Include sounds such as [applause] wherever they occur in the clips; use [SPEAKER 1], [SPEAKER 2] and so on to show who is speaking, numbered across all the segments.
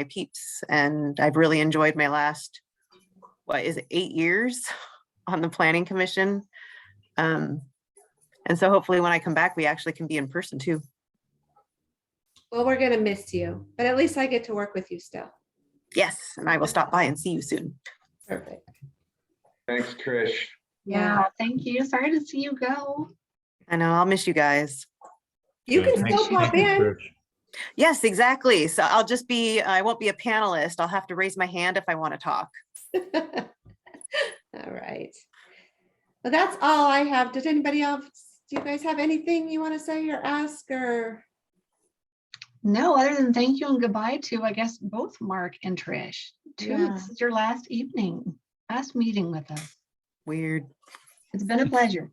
[SPEAKER 1] my peeps and I've really enjoyed my last, what is it, eight years on the planning commission. Um, and so hopefully when I come back, we actually can be in person too.
[SPEAKER 2] Well, we're gonna miss you, but at least I get to work with you still.
[SPEAKER 1] Yes, and I will stop by and see you soon.
[SPEAKER 2] Perfect.
[SPEAKER 3] Thanks, Trish.
[SPEAKER 2] Yeah,
[SPEAKER 4] Yeah, thank you. Sorry to see you go.
[SPEAKER 1] I know, I'll miss you guys.
[SPEAKER 2] you can
[SPEAKER 5] Thanks.
[SPEAKER 2] still pop in.
[SPEAKER 1] Yes, exactly. So I'll just be, I won't be a panelist. I'll have to raise my hand if I want to talk.
[SPEAKER 2] [laughs] All right. Well, that's all I have. Did anybody else, do you guys have anything you want to say or ask or?
[SPEAKER 4] No, other than thank you and goodbye to, I guess, both Mark and Trish. Two,
[SPEAKER 2] Yeah.
[SPEAKER 4] this is your last evening, last meeting with us.
[SPEAKER 1] Weird.
[SPEAKER 4] It's been a pleasure.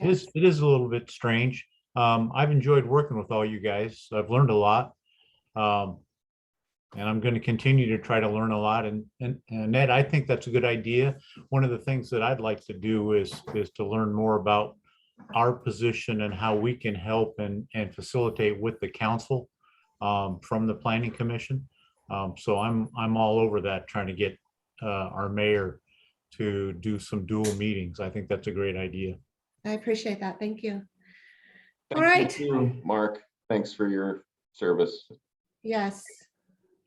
[SPEAKER 5] It is, it is a little bit strange. Um, I've enjoyed working with all you guys. I've learned a lot. Um, and I'm going to continue to try to learn a lot. And, and, and Ned, I think that's a good idea. One of the things that I'd like to do is, is to learn more about our position and how we can help and, and facilitate with the council, um, from the planning commission. Um, so I'm, I'm all over that, trying to get, uh, our mayor to do some dual meetings. I think that's a great idea.
[SPEAKER 2] I appreciate that. Thank you. All
[SPEAKER 3] Thank you, too, Mark, thanks for your service.
[SPEAKER 2] Yes.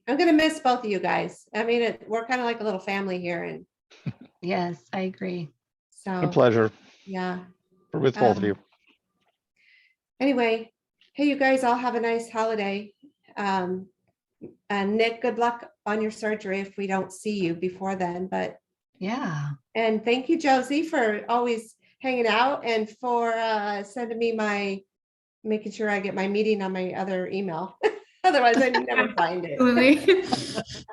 [SPEAKER 2] I'm gonna miss both of you guys. I mean, it- we're kind of like a little family here and
[SPEAKER 4] Yes, I agree.
[SPEAKER 6] A
[SPEAKER 2] so,
[SPEAKER 6] pleasure
[SPEAKER 2] yeah.
[SPEAKER 6] with both of
[SPEAKER 2] Um,
[SPEAKER 6] you.
[SPEAKER 2] Anyway, hey, you guys all have a nice holiday. Um, and Nick, good luck on your surgery if we don't see you before then, but,
[SPEAKER 4] Yeah.
[SPEAKER 2] and thank you, Josie, for always hanging out and for, uh, sending me my, making sure I get my meeting on my other email. [laughs] Otherwise I
[SPEAKER 5] [laughs]
[SPEAKER 2] never find it.
[SPEAKER 4] [laughs]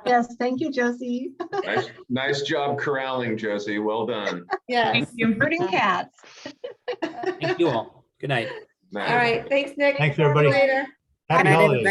[SPEAKER 4] Yes, thank you, Josie.
[SPEAKER 3] Nice- Nice job corralling, Josie,
[SPEAKER 2] [laughs]
[SPEAKER 3] well done.
[SPEAKER 2] Yes.
[SPEAKER 4] Herding cats.
[SPEAKER 7] Thank you all. Good night.
[SPEAKER 2] All right, thanks, Nick.
[SPEAKER 5] Thanks,
[SPEAKER 2] Talk to you
[SPEAKER 5] everybody.
[SPEAKER 2] Later.
[SPEAKER 5] Happy
[SPEAKER 1] Happy
[SPEAKER 5] holidays.